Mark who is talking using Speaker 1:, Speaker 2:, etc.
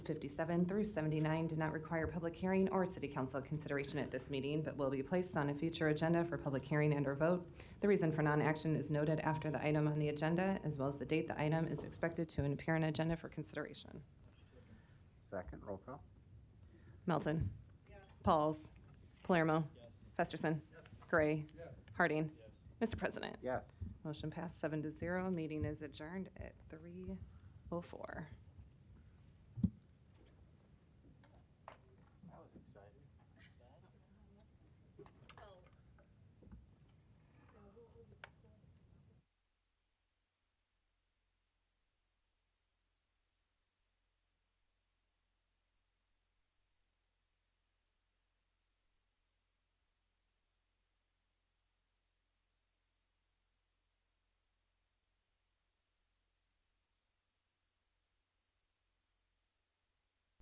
Speaker 1: 57 through 79 do not require public hearing or city council consideration at this meeting, but will be placed on a future agenda for public hearing and/or vote. The reason for non-action is noted after the item on the agenda, as well as the date the item is expected to appear on agenda for consideration.
Speaker 2: Second, roll call.
Speaker 1: Melton. Pauls. Palermo. Festerson. Gray. Harding. Mr. President,
Speaker 2: Yes.
Speaker 1: oh motion passed seven to zero. Meeting is adjourned at 3:04.